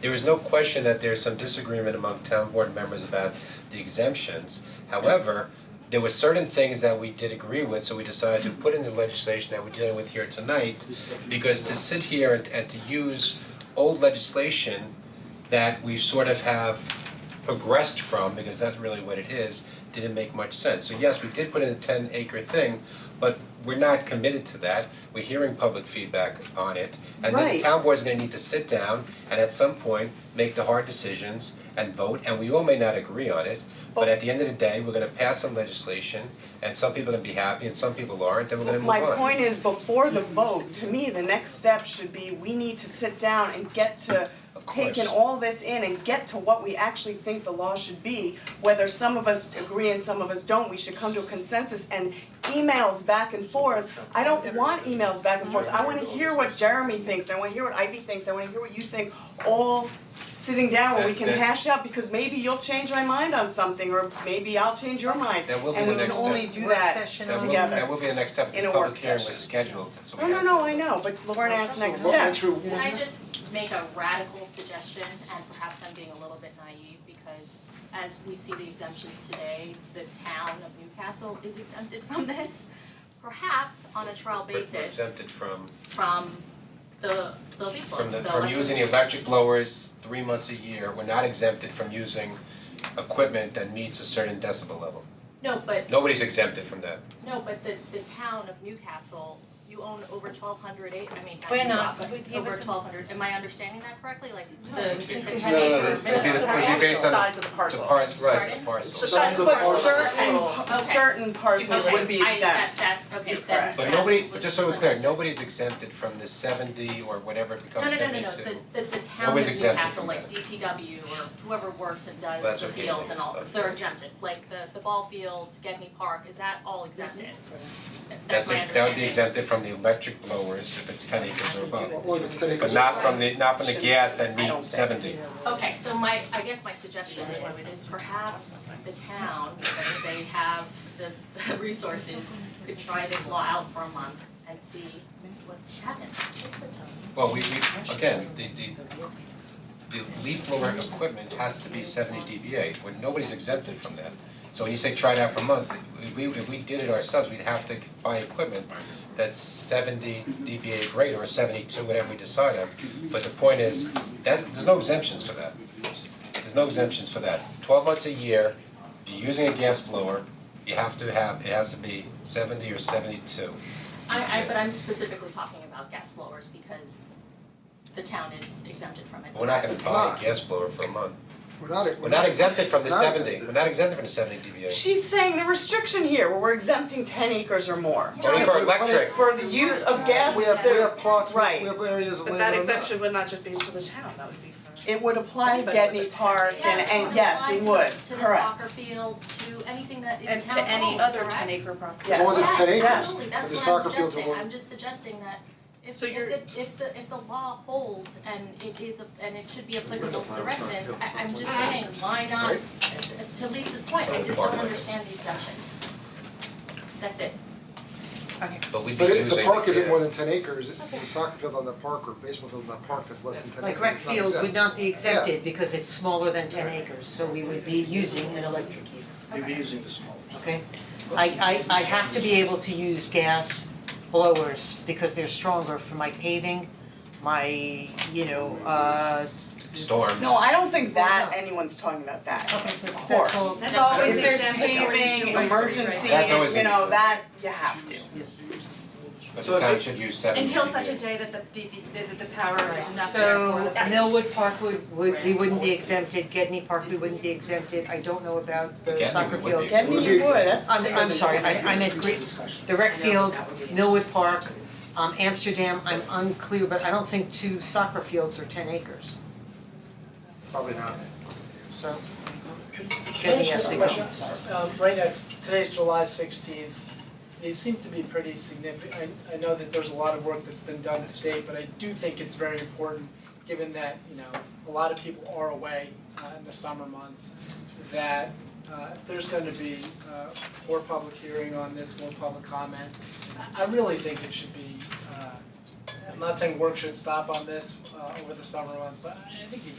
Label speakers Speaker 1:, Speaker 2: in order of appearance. Speaker 1: There is no question that there's some disagreement among town board members about the exemptions. However, there were certain things that we did agree with, so we decided to put in the legislation that we're dealing with here tonight. Because to sit here and and to use old legislation that we sort of have progressed from, because that's really what it is, didn't make much sense. So yes, we did put in a ten acre thing, but we're not committed to that, we're hearing public feedback on it. And then the
Speaker 2: Right.
Speaker 1: town board's gonna need to sit down and at some point, make the hard decisions and vote, and we all may not agree on it. But at the end of the day, we're gonna pass some legislation, and some people are gonna be happy and some people aren't, then we're gonna move
Speaker 2: My
Speaker 1: on.
Speaker 2: point is, before the vote, to me, the next step should be, we need to sit down and get to taking
Speaker 1: course.
Speaker 2: all this in and get to what we actually think the law should be. Whether some of us agree and some of us don't, we should come to a consensus and emails back and forth. I don't want emails back and forth, I wanna hear what Jeremy thinks, I wanna hear what Ivy thinks, I wanna hear what you think, all sitting down where we
Speaker 1: That-
Speaker 2: can
Speaker 1: that-
Speaker 2: hash out, because maybe you'll change my mind on something, or maybe I'll change your mind.
Speaker 1: That will be the next
Speaker 2: And we can only
Speaker 1: step.
Speaker 2: do
Speaker 3: Work
Speaker 2: that
Speaker 3: session
Speaker 2: together.
Speaker 1: That will, that will be the next step,
Speaker 2: In
Speaker 1: this
Speaker 2: a
Speaker 1: public
Speaker 2: work
Speaker 1: hearing was
Speaker 2: session.
Speaker 1: scheduled, so we
Speaker 2: No,
Speaker 1: have
Speaker 2: Oh, no,
Speaker 1: to.
Speaker 2: no, I know, but Lauren asked next
Speaker 4: Well,
Speaker 2: steps.
Speaker 4: true.
Speaker 5: Can I just make a radical suggestion, and perhaps I'm being a little bit naive, because as we see the exemptions today, the town of Newcastle is exempted from this. Perhaps on a trial
Speaker 1: But we're
Speaker 5: basis
Speaker 1: exempted from,
Speaker 5: from the, the leaf
Speaker 1: from the,
Speaker 5: the
Speaker 1: from
Speaker 5: electric-
Speaker 1: using the electric blowers three months a year, we're not exempted from using equipment that meets a certain decibel level.
Speaker 5: No, but,
Speaker 1: Nobody's exempted from that.
Speaker 5: no, but the, the town of Newcastle, you own over twelve hundred acre, I mean, not
Speaker 3: We're
Speaker 5: you,
Speaker 3: not,
Speaker 5: but
Speaker 3: but yeah,
Speaker 5: over
Speaker 3: but the-
Speaker 5: twelve hundred, am I understanding that correctly? Like, so
Speaker 3: No,
Speaker 5: it's a
Speaker 3: it's-
Speaker 5: ten acre.
Speaker 3: No, no, no,
Speaker 1: It would be, the- it would be based on the,
Speaker 6: of the
Speaker 1: the parcel, size of the
Speaker 5: Right.
Speaker 1: parcel.
Speaker 6: So
Speaker 2: But
Speaker 6: that's the parcel.
Speaker 2: certain,
Speaker 5: Okay.
Speaker 2: certain parcels
Speaker 5: Okay,
Speaker 2: would be
Speaker 5: I- that-
Speaker 2: exempt.
Speaker 5: that- okay,
Speaker 2: You're
Speaker 5: then
Speaker 2: correct.
Speaker 1: But
Speaker 5: that
Speaker 1: nobody,
Speaker 5: was
Speaker 1: just so we're clear,
Speaker 5: misunderstood.
Speaker 1: nobody's exempted from the seventy or whatever it
Speaker 5: No,
Speaker 1: becomes
Speaker 5: no, no, no,
Speaker 1: seventy-two.
Speaker 5: no, the the the town
Speaker 1: Nobody's
Speaker 5: of
Speaker 1: exempted
Speaker 5: Newcastle,
Speaker 1: from
Speaker 5: like
Speaker 1: that.
Speaker 5: DPW or whoever works and
Speaker 1: Well,
Speaker 5: does
Speaker 1: that's
Speaker 5: the
Speaker 1: okay,
Speaker 5: fields and all,
Speaker 1: it's not-
Speaker 5: they're exempted, like the the ball fields, Gedney Park, is that all exempted? Th-
Speaker 1: That's
Speaker 5: That's my
Speaker 1: it, that would be
Speaker 5: understanding.
Speaker 1: exempted from the electric blowers if it's ten acres or above,
Speaker 4: Well, if it's ten acres.
Speaker 1: but not from the, not from the gas that
Speaker 2: I don't
Speaker 1: meets
Speaker 2: think.
Speaker 1: seventy.
Speaker 5: Okay, so my, I guess my suggestion is, is perhaps the town, because they have the the resources, could try this law out for a month and see what happens.
Speaker 1: Well, we we, again, the the the leaf blower equipment has to be seventy dBA, when nobody's exempted from that. So when you say try it out for a month, if we if we did it ourselves, we'd have to buy equipment that's seventy dBA greater or seventy-two, whatever we decide on. But the point is, that's, there's no exemptions for that. There's no exemptions for that. Twelve months a year, if you're using a gas blower, you have to have, it has to be seventy or seventy-two.
Speaker 5: I I but I'm specifically talking about gas blowers because the town is exempted from it.
Speaker 1: But We're not gonna
Speaker 4: It's
Speaker 1: buy a
Speaker 4: not.
Speaker 1: gas blower for a month.
Speaker 4: We're not,
Speaker 1: We're not exempted from the
Speaker 4: Not
Speaker 1: seventy,
Speaker 4: exempted.
Speaker 1: we're not exempted from the seventy DBA.
Speaker 2: She's saying the restriction here, where we're exempting ten acres or more.
Speaker 1: Only for electric,
Speaker 2: For the use of gas,
Speaker 4: We have, we have
Speaker 2: that's
Speaker 4: plots, we
Speaker 2: right.
Speaker 4: have areas of land.
Speaker 6: But that
Speaker 4: are not.
Speaker 6: exemption would not just be to the town, that would be for.
Speaker 2: It would apply to
Speaker 6: Anybody with
Speaker 2: Getney
Speaker 6: a-
Speaker 2: Park and, and yes, it would,
Speaker 5: to the
Speaker 2: correct.
Speaker 5: soccer fields, to anything that is
Speaker 6: And
Speaker 5: town
Speaker 6: to any
Speaker 5: owned,
Speaker 6: other
Speaker 5: correct?
Speaker 6: ten acre property.
Speaker 4: As long as it's
Speaker 2: Yes,
Speaker 4: ten acres.
Speaker 2: yes.
Speaker 4: but the
Speaker 5: Absolutely, that's what
Speaker 4: soccer
Speaker 5: I'm
Speaker 4: fields are
Speaker 5: suggesting,
Speaker 4: one.
Speaker 5: I'm just suggesting that if
Speaker 6: So
Speaker 5: if
Speaker 6: you're-
Speaker 5: the if the if the law holds and it is a- and it should be applicable to the
Speaker 4: Right.
Speaker 5: residents, I I'm just saying, why not? To Lisa's point, I just don't understand the exemptions. That's it.
Speaker 1: but we'd be
Speaker 4: But
Speaker 1: using.
Speaker 4: if the park isn't
Speaker 1: yeah.
Speaker 4: more than ten acres, if the soccer field on that park or baseball field on that park that's less than ten acres,
Speaker 3: Like rec
Speaker 4: it's not
Speaker 3: field would
Speaker 4: exempt.
Speaker 3: not be exempted because it's smaller than ten acres, so we would be using an electric heater,
Speaker 7: You'd be using the small.
Speaker 3: okay? I I I have to be able to use gas blowers because they're stronger for my paving, my, you know, uh.
Speaker 1: Storms.
Speaker 2: No, I don't think that
Speaker 3: No.
Speaker 2: anyone's talking about that,
Speaker 3: Okay,
Speaker 2: of
Speaker 3: that's
Speaker 2: course.
Speaker 3: all-
Speaker 6: That's always
Speaker 2: If there's
Speaker 6: exempt according to
Speaker 2: paving,
Speaker 6: Mike,
Speaker 2: emergency,
Speaker 1: That's always
Speaker 2: you know,
Speaker 1: exempt.
Speaker 2: that, you have to.
Speaker 1: But the town should use seventy
Speaker 8: Until such a
Speaker 1: DBA.
Speaker 8: day that the DP, that that the power is not there for
Speaker 3: So
Speaker 8: the.
Speaker 3: Millwood Park would would, we wouldn't be exempted, Gedney Park, we wouldn't be exempted, I don't know about the
Speaker 1: Gedney
Speaker 3: soccer
Speaker 1: would be
Speaker 3: field.
Speaker 2: Getney, you would, that's.
Speaker 3: I'm I'm sorry, I I meant Greek, the rec field, Millwood Park, um Amsterdam, I'm unclear, but I don't think two soccer fields are ten acres,
Speaker 4: Probably not.
Speaker 3: so.
Speaker 9: Can I
Speaker 3: Gedney has
Speaker 9: ask
Speaker 3: to
Speaker 9: a
Speaker 3: be
Speaker 9: question?
Speaker 3: size.
Speaker 9: Um, right now, it's- today's July sixteenth, they seem to be pretty significant, I, I know that there's a lot of work that's been done to date, but I do think it's very important, given that, you know, a lot of people are away, uh, in the summer months, that, uh, if there's gonna be, uh, more public hearing on this, more public comment. I, I really think it should be, uh, I'm not saying work should stop on this, uh, over the summer months, but I I think you